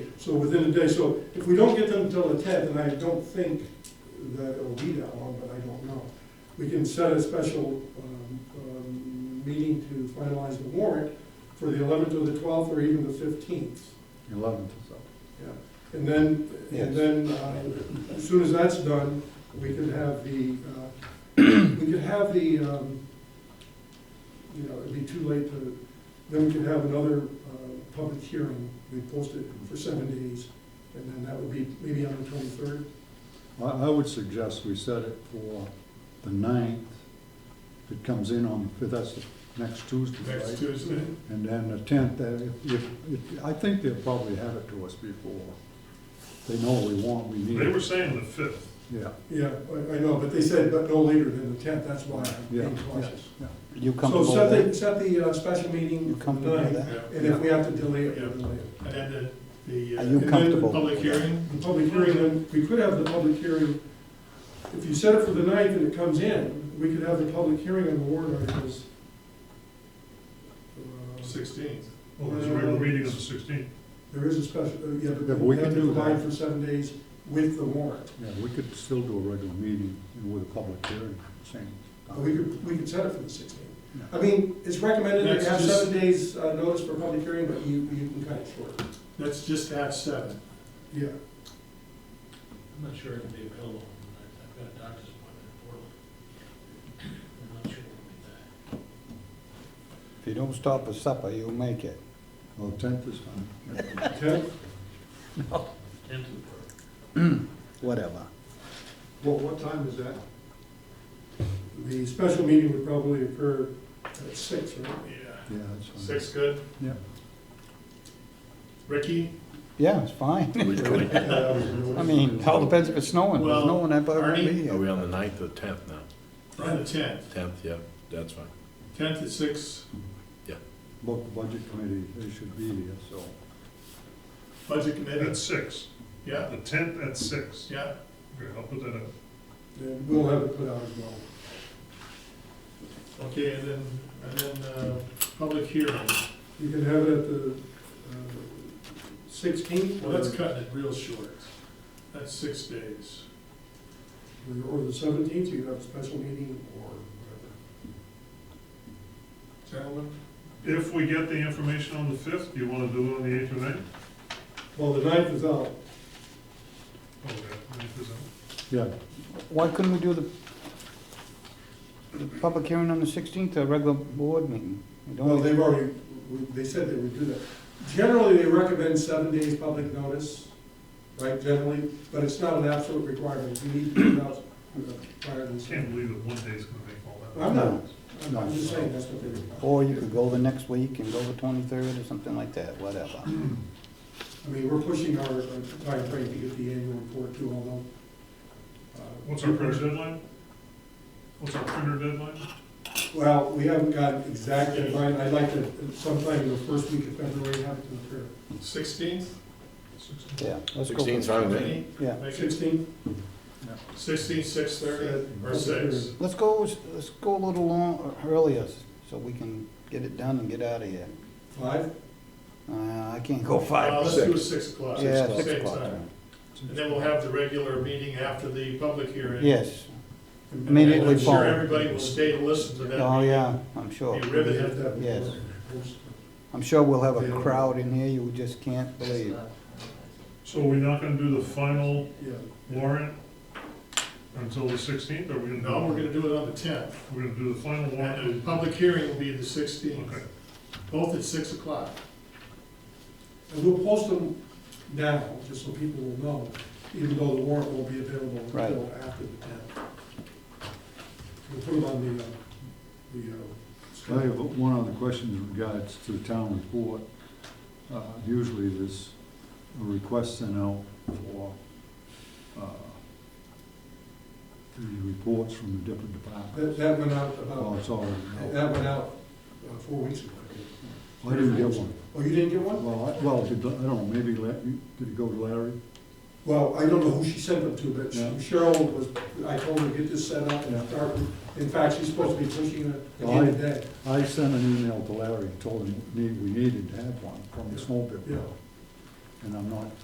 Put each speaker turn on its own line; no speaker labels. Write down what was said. So within a day, so if we don't get them until the tenth, and I don't think that it'll be that long, but I don't know, we can set a special um, um, meeting to finalize the warrant for the eleventh or the twelfth or even the fifteenth.
Eleventh is up.
And then,
Yes.
and then, uh, as soon as that's done, we could have the, uh, we could have the, um, you know, it'd be too late to, then we could have another uh, public hearing, we post it for seven days, and then that would be maybe on the twenty-third.
I, I would suggest we set it for the ninth. If it comes in on, the fifth, that's the next Tuesday,
Next
right?
Tuesday?
And then the tenth, if, if, if- I think they'll probably have it to us before. They know we want, we need
They were
it.
saying the fifth.
Yeah,
Yeah, I, I know, but they said, but no later than the tenth, that's why I'm being
Yeah.
cautious.
yeah.
You
So
comfortable
set
with
the,
that?
set the uh, special meeting
You
for the
comfortable with
ninth,
that?
And
and if we have to delay it, we'll delay it.
then the, the. uh,
Are you
and then the
comfortable?
Public hearing?
The public hearing, then, we could have the public hearing, if you set it for the ninth and it comes in, we could have the public hearing on the warrant articles. Uh,
Sixteenth. Well, there's a regular meeting on the sixteenth.
There is a special, uh, yeah,
Yeah,
but
but
we
we
have
could
to
do that.
combine for seven days with the warrant.
Yeah, we could still do a regular meeting with a public hearing, same.
Uh, We could, we could set it for the sixteenth.
Yeah.
I mean, it's recommended that you have
That's just-
seven days uh, notice for public hearing, but you, you can cut it short.
Let's just have seven.
Yeah,
I'm not sure I can be available on the ninth, I've got a doctor's appointment in Portland. I'm not sure I'll be back.
If you don't stop for supper, you'll make it.
Well, tenth is fine.
tenth,
Tenth of April.
Whatever.
Well, what time is that?
the special meeting would probably occur at six, right?
Yeah.
Yeah, that's fine.
Six, good?
Yeah.
Ricky?
Yeah, it's fine. I mean, it all depends if it's snowing. There's no
Well,
one ever will
Arnie,
be
Are
here.
we on the ninth or tenth now?
On the tenth,
Tenth, yeah, that's fine.
tenth at six,
Both the budget committee, they should be here, so.
budget committee,
At six.
yeah,
The tenth at six.
yeah.
Okay, I'll put that up.
Then we'll have it put out as well.
Okay, and then, and then, uh, public hearing.
You can have it at the uh, sixteenth,
Well, that's cutting it real short. That's six days.
or the seventeenth, you can have a special meeting or whatever.
Gentlemen?
If we get the information on the fifth, do you wanna do it on the eighth or ninth?
Well, the ninth is out.
Okay, ninth is on.
Yeah,
Why couldn't we do the, the public hearing on the sixteenth, a regular board meeting? We don't-
Well, they've already, we- they said they would do that. Generally, they recommend seven days public notice, right, generally, but it's not an absolute requirement. You need to put out prior to the
Can't
same.
believe that one day's gonna make all that.
I'm not, I'm- I'm just saying that's what they require.
Or you could go the next week and go the twenty-third or something like that, whatever.
I mean, we're pushing our our timeframe to get the annual report too, although. uh,
What's our printer deadline? What's our printer deadline?
Well, we haven't got exact deadline, I'd like to, sometime in the first week of February, have it to occur.
Sixteenth?
Yeah, let's go. for-
Sixteen's fine with me.
Yeah,
Make it
Sixteenth?
sixteen, six thirty, or six. Uh,
let's go, let's go a little long, earlier, so we can get it done and get out of here.
Five?
Uh, I can't go
Uh,
five,
Let's do it six o'clock.
yeah,
Same
six o'clock.
time. And then we'll have the regular meeting after the public hearing.
Yes,
And
Immediately
I'm sure
following.
everybody will stay to listen to that.
oh,
meeting.
yeah, I'm sure.
Be riveted.
Yes. I'm sure we'll have a crowd in here you just can't believe.
So we're not gonna do the final
Yeah.
warrant until the sixteenth, or we're gonna?
No, we're gonna do it on the tenth,
We're gonna do the final
and the
warrant.
public hearing will be the sixteenth,
Okay.
both at six o'clock.
And we'll post them now, just so people will know, even though the warrant won't be available
Right.
until after the tenth. We'll put them on the, uh, the, uh.
I have
schedule.
one other question in regards to the town report. Uh, Usually there's a request sent out for uh, the reports from the different
That,
departments.
that went out
Oh,
about,
it's already out.
that went out uh, four weeks ago.
I didn't get one.
Oh, you didn't get one?
Well, I, well, did, I don't know, maybe, La- did it go to Larry?
Well, I don't know who she sent them to, but
Yeah.
Cheryl was, I told her, get this set up and
Yeah.
start. In fact, she's supposed to be pushing it at the
Well, I-
end of the day.
I sent an email to Larry and told him we need- we needed to have one from the snowmobile.
Yeah.
And I'm not